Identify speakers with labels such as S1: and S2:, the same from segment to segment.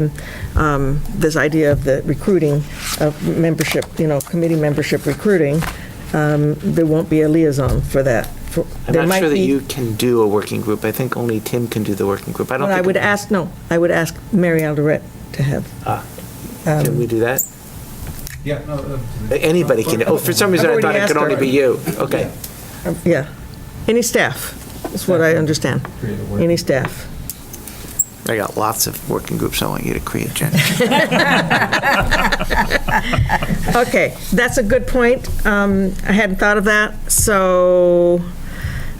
S1: And um, this idea of the recruiting, of membership, you know, committee membership recruiting, um, there won't be a liaison for that. For- there
S2: I'm not
S1: might
S2: sure that
S1: be-
S2: you can do a working group. I think only Tim can do the working group. I don't
S1: Well, I
S2: think.
S1: would ask, no, I would ask Mary Alderette to have.
S2: Ah,
S1: um,
S2: Can we do that?
S3: Yeah, no, uh,
S2: Anybody can. Oh, for some reason,
S1: I've
S2: I thought
S1: already
S2: it could
S1: asked
S2: only
S1: her.
S2: be you. Okay.
S1: Yeah, any staff, is what I understand.
S3: Create a working-
S1: Any staff.
S2: I got lots of working groups I want you to create, Jen.
S1: Okay, that's a good point. Um, I hadn't thought of that, so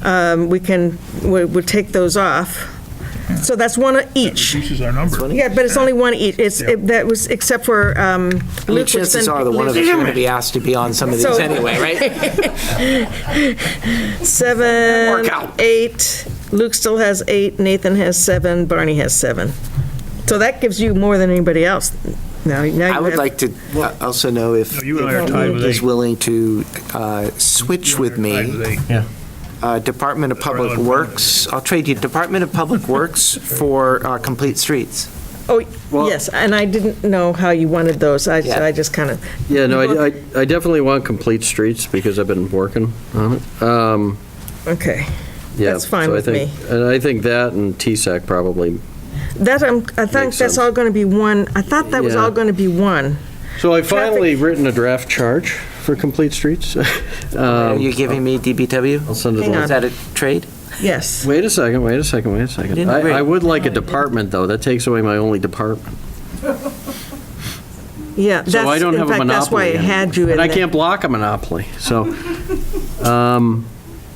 S1: um, we can, we- we'll take those off. So that's one of each.
S4: Reduces our number.
S1: Yeah, but it's only one each. It's, it- that was, except for um,
S2: I mean,
S1: Luke. was
S2: chances
S1: then-
S2: are the one of us are going to be asked to be on some of these
S1: So-
S2: anyway, right?
S1: Seven,
S2: Work out.
S1: eight, Luke still has eight, Nathan has seven, Barney has seven. So that gives you more than anybody else. Now, now you
S2: I would
S1: have-
S2: like to uh, also know if
S4: No, you and I are tied with
S2: is
S4: eight.
S2: willing to uh, switch with me. uh, Department of Public
S4: Department of
S2: Works, I'll trade you Department of Public Works for uh, Complete Streets.
S1: Oh,
S5: Well-
S1: yes, and I didn't know how you wanted those. I,
S2: Yeah.
S1: I just kind of,
S5: Yeah, no, I, I I definitely want complete streets because I've been working on it. Um,
S1: okay.
S5: yeah,
S1: That's fine
S5: so I
S1: with
S5: think- And I think that and TSAC probably.
S1: That, I'm- I think that's
S5: Makes sense.
S1: all going to be one, I thought that was
S5: Yeah.
S1: all going to be one.
S5: So I finally written a draft charge for complete streets. Um,
S2: Are you giving me DBW?
S5: I'll send it
S1: Hang
S2: Is
S5: along.
S2: that a trade?
S1: Yes.
S5: Wait a second, wait a second, wait a second.
S2: Didn't agree.
S5: I, I would like a department, though. That takes away my only department.
S1: Yeah.
S5: So I
S1: that's-
S5: don't have a monopoly.
S1: In fact, that's why I had you
S5: anymore.
S1: in
S5: And I
S1: there.
S5: can't block a monopoly, so. um,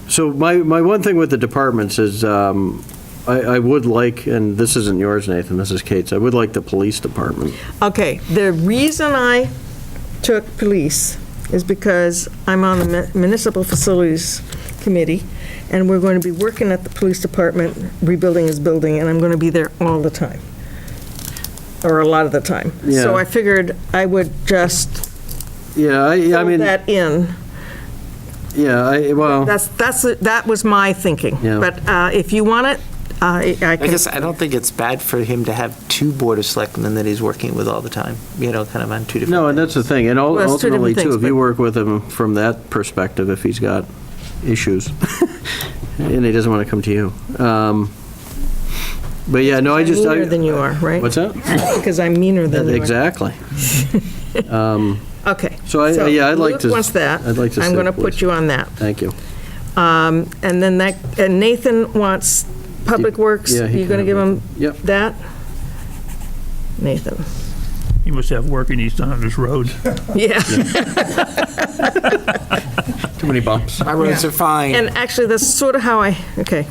S5: So my, my one thing with the departments is, um, I, I would like, and this isn't yours, Nathan, this is Kate's, I would like the police department.
S1: Okay, the reason I took police is because I'm on the mu- municipal facilities committee, and we're going to be working at the police department, rebuilding his building, and I'm going to be there all the time, or a lot of the time. So
S5: Yeah.
S1: I figured I would just
S5: Yeah, I, I
S1: fill
S5: mean,
S1: that in.
S5: yeah, I, well,
S1: That's, that's, that was my thinking.
S5: Yeah.
S1: But uh, if you want it, uh, I I
S2: I
S1: can
S2: guess, I don't think it's bad for him to have two Board of Selectmen that he's working with all the time, you know, kind of on two different.
S5: no, and that's the thing, and ul-
S1: Well, it's two different
S5: ultimately, too,
S1: things,
S5: if you
S1: but-
S5: work with him from that perspective, if he's got issues, and he doesn't want to come to you. Um, But yeah, no, I just. I-
S1: meaner than you are, right?
S5: What's that?
S1: Because I'm meaner than you are.
S5: Exactly.
S1: Okay.
S5: So I- yeah, I'd like to-
S1: Luke wants that.
S5: I'd like to
S1: I'm
S5: say
S1: going to put
S5: please.
S1: you on that.
S5: Thank you.
S1: Um, And then that, and Nathan wants Public Works.
S5: Yeah, he
S1: You're going to
S5: can
S1: give
S5: have
S1: him
S5: Yep.
S1: that? Nathan.
S4: He must have work in East His Road.
S1: Yeah.
S5: Too many bumps.
S2: My roads are fine.
S1: And actually, that's sort of how I, okay.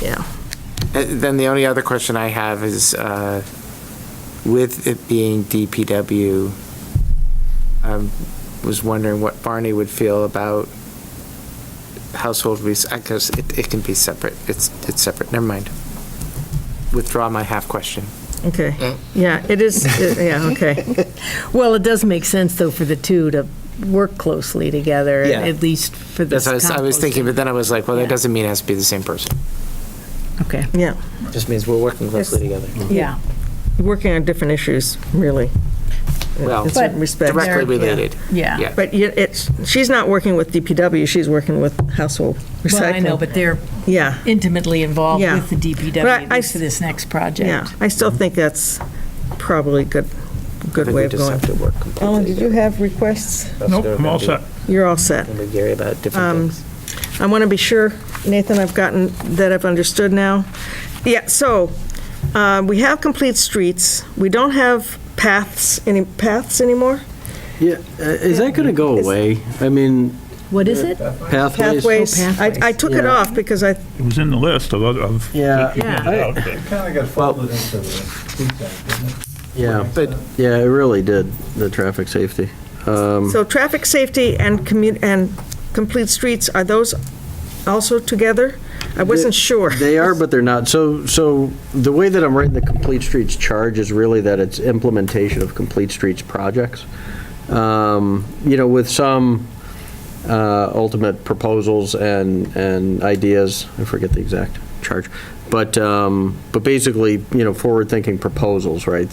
S1: Yeah.
S2: Uh, Then the only other question I have is, uh, with it being DPW, I um, was wondering what Barney would feel about household rec, I guess it, it can be separate, it's, it's separate, never mind. Withdraw my half question.
S1: Okay. Yeah, it is, yeah, okay.
S6: Well, it does make sense, though, for the two to work closely together,
S2: Yeah.
S6: at least for this
S2: That's what I was, I was thinking, but then I was like, well, that
S6: Yeah.
S2: doesn't mean it has to be the same person.
S6: composting. Okay,
S1: Yeah.
S2: Just means we're working closely together.
S6: yeah.
S1: Working on different issues, really,
S2: Well,
S1: in certain
S6: But-
S1: respects.
S2: directly
S6: They're-
S2: related.
S6: Yeah.
S2: Yeah.
S1: But you- it's, she's not working with DPW, she's working with household recycling.
S6: Well, I know, but they're
S1: Yeah.
S6: intimately involved
S1: Yeah.
S6: with the DPW
S1: But I-
S6: at least for this next
S1: Yeah,
S6: project.
S1: I still think that's probably a good,
S2: I
S1: good
S2: think
S1: way
S2: we
S1: of
S2: just
S1: going.
S2: have to work completely
S1: Ellen, did you
S2: together.
S1: have requests?
S2: That's
S4: Nope,
S2: what
S4: I'm all
S2: gonna do.
S4: set.
S1: You're all set.
S2: And with Gary about different
S1: Um,
S2: things.
S1: I want to be sure, Nathan, I've gotten, that I've understood now. Yeah, so, uh, we have complete streets, we don't have paths, any paths anymore?
S5: Yeah, uh, is that going to go
S1: Is-
S5: away? I mean,
S6: What is it?
S5: pathways?
S1: Pathways?
S6: Oh,
S1: I I took it
S5: Yeah.
S1: off because I,
S4: It was in the list of, other- of.
S5: Yeah.
S4: Yeah.
S3: Kind of got folded into uh, the food bank, didn't it?
S5: Yeah,
S2: But-
S5: yeah, it really did, the traffic safety. Um,
S1: so traffic safety and commu, and complete streets, are those also together? I wasn't sure.
S5: They are, but they're not. So, so the way that I'm writing the Complete Streets charge is really that it's implementation of Complete Streets projects. Um, You know, with some uh, ultimate proposals and, and ideas, I forget the exact charge, but, um, but basically, you know, forward-thinking proposals, right?